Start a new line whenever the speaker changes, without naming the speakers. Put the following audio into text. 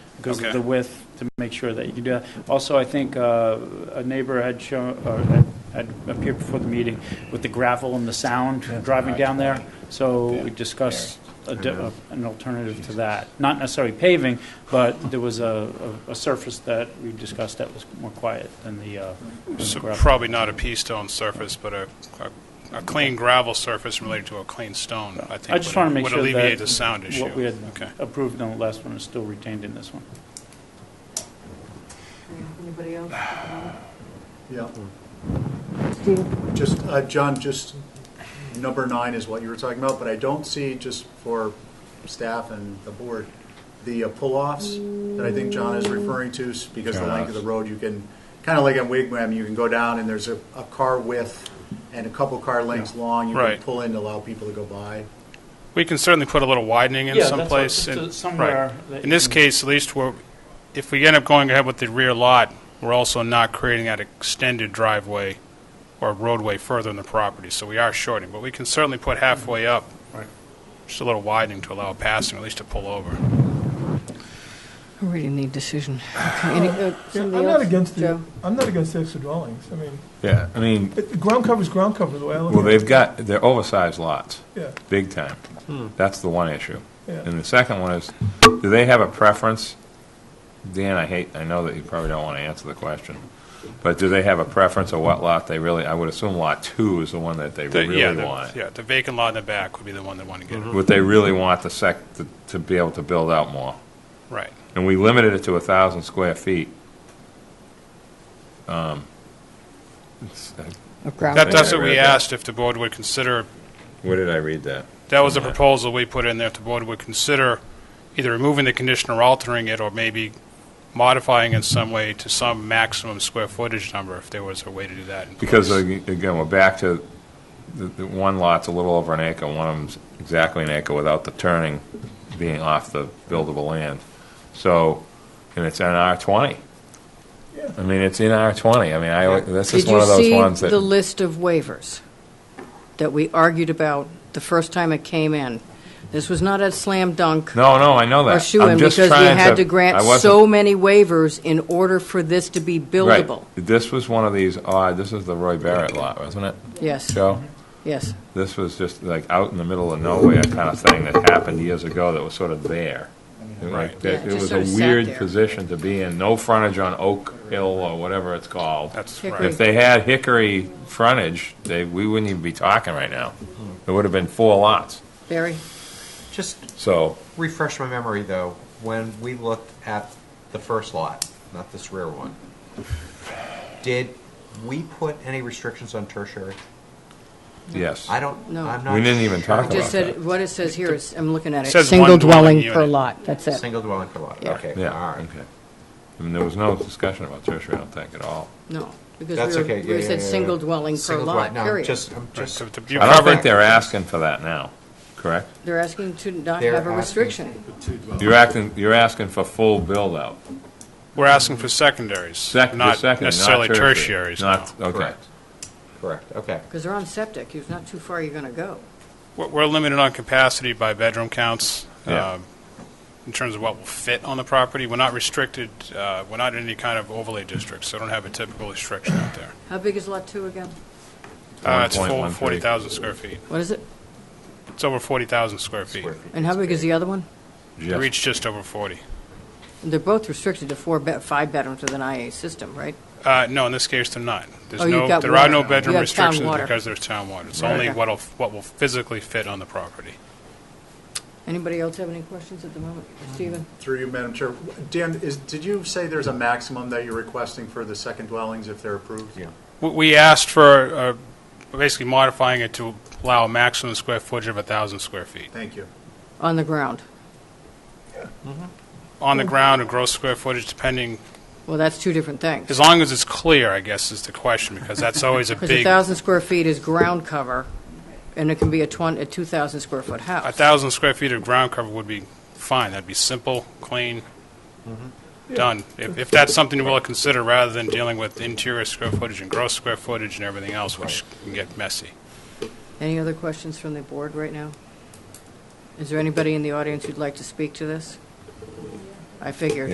because
Okay.
of the width, to make sure that you can do that. Also, I think uh, a neighbor had shown, or had- had appeared before the meeting with the gravel and the sound driving down there, so we discussed a di- a- an alternative to that. Not necessarily paving, but there was a a- a surface that we discussed that was more quiet than the uh, than the
So
gravel.
probably not a pea stone surface, but a, a, a clean gravel surface related to a clean stone, I think.
I just
would-
want to make sure that...
Would alleviate the sound issue.
What we had
Okay.
approved in the last one is still retained in this one.
Anybody else?
Yeah,
Steve?
just, uh, John, just number nine is what you were talking about, but I don't see, just for staff and the board, the uh, pull-offs that I think John is referring to, s- because the length of the road, you can, kind of like a wigwam, you can go down and there's a, a car width and a couple car lengths long, you can
Right.
pull in to allow people to go by.
We can certainly put a little widening in
Yeah, that's what-
someplace.
just,
and-
uh, somewhere
right.
that
In
you
this
can-
case, at least, we're, if we end up going ahead with the rear lot, we're also not creating that extended driveway or roadway further in the property, so we are shorting. But we can certainly put halfway up,
Mm-hmm. Right.
just a little widening to allow passing, at least to pull over.
A really neat decision. Okay, any-
Uh,
Yeah, I'm
somebody
not
else?
against the,
Joe?
I'm not against extra dwellings. I mean,
Yeah, I mean,
it- ground cover's ground cover, the way I look at
well,
it.
they've got, they're oversized lots,
Yeah,
big time. That's the one issue.
Yeah.
And the second one is, do they have a preference? Dan, I hate, I know that you probably don't want to answer the question, but do they have a preference of what lot they really, I would assume lot two is the one that they
The- yeah,
really
the-
want.
Yeah, the vacant lot in the back would be the one that want to get it.
Would they really want the sec, to- to be able to build out more?
Right.
and we limited it to a thousand square feet. Um, it's-
a ground-
That, that's what
I
we
read that.
asked, if the board would consider,
Where did I read that?
that was a proposal we put in there, if the board would consider either removing the condition or altering it, or maybe modifying in some way to some maximum square footage number, if there was a way to do that. in
Because
place.
ag- again, we're back to, the, the one lot's a little over an acre, one of them's exactly an acre without the turning being off the buildable land. So, and it's in R twenty. I mean, it's in R twenty. I mean, I, this is
Did
one
you
of those ones
see the
that,
list of waivers that we argued about the first time it came in? This was not a slam dunk
no, no, I know that.
or shoe-in
I'm just
because we
trying
had to
I
grant
wasn't-
so many waivers in order for this to be
Right.
buildable.
This was one of these odd, this is the Roy Barrett lot, wasn't it,
Yes,
Joe?
yes.
This was just like out in the middle of nowhere kind of thing that happened years ago that was sort of there. Like,
Yeah, it
that- It
just
was
sort
a
of sat
weird
there.
position to be in, no frontage on Oak Hill or whatever it's called.
That's
Hickory.
right.
If they had Hickory frontage, they, we wouldn't even be talking right now.
Hmm.
It would have been four lots.
Barry?
Just
So,
refresh my memory, though, when we looked at the first lot, not this rear one, did we put any restrictions on tertiary?
yes.
I don't,
No.
I'm not.
We didn't even
sure.
talk
It
about
just
that.
said, what it says here is, I'm looking at
It
it.
says
Single
one dwelling
dwelling per
unit.
lot, that's it.
Single dwelling per lot,
Yeah.
okay, all
Yeah,
right.
okay. I mean, there was no discussion about tertiary, I don't think, at all.
No, because
That's
we
okay,
were-
yeah,
we
yeah,
said
yeah, yeah.
single dwelling per
Single
lot,
dwelling, no, I'm
period.
just, I'm
Right,
just.
so to- you
I don't
covered-
think they're asking for that now, correct?
They're asking to not
They're
have a
asking-
restriction.
You're acting, you're asking for full build-out.
We're asking for secondaries,
Sec- the
not
second,
necessarily
not
tertiaries. no.
Not, okay.
Correct. Correct, okay.
Because they're on septic, it's not too far you're going to go.
We're- We're limited on capacity by bedroom counts,
Yeah.
um, in terms of what will fit on the property. We're not restricted, uh, we're not in any kind of overlay district, so I don't have a typical restriction out there.
How big is lot two again?
Uh, It's
1.13.
full 40,000 square feet.
What is it?
It's over 40,000 square feet.
Square feet.
And how big is the other one?
The
Just-
reach just over 40.
They're both restricted to four, be- five bedrooms with an IA system, right?
Uh, No, in this case, they're not. There's
Oh, you've
no,
got
there are no
water.
bedroom
You have town
restrictions
water.
because there's town water. It's
Right.
only
Okay.
what'll, what will physically fit on the property.
Anybody else have any questions at the moment? Stephen?
Through you, Madam Chair, Dan, is, did you say there's a maximum that you're requesting for the second dwellings if they're approved?
Yeah.
We- We asked for, uh, basically modifying it to allow a maximum square footage of 1,000 square feet.
Thank you.
On the ground.
on the ground or gross square footage, depending,
Well, that's two different things.
as long as it's clear, I guess, is the question, because that's always a
Because a
big, a
thousand square feet is ground cover, and it can be a twen, a two thousand square foot house.
thousand square feet of ground cover would be fine, that'd be simple, clean, done. If, if that's something you will consider, rather than dealing with interior square footage and gross square footage and everything else, which can get messy.
Any other questions from the board right now? Is there anybody in the audience who'd like to speak to this? I figured.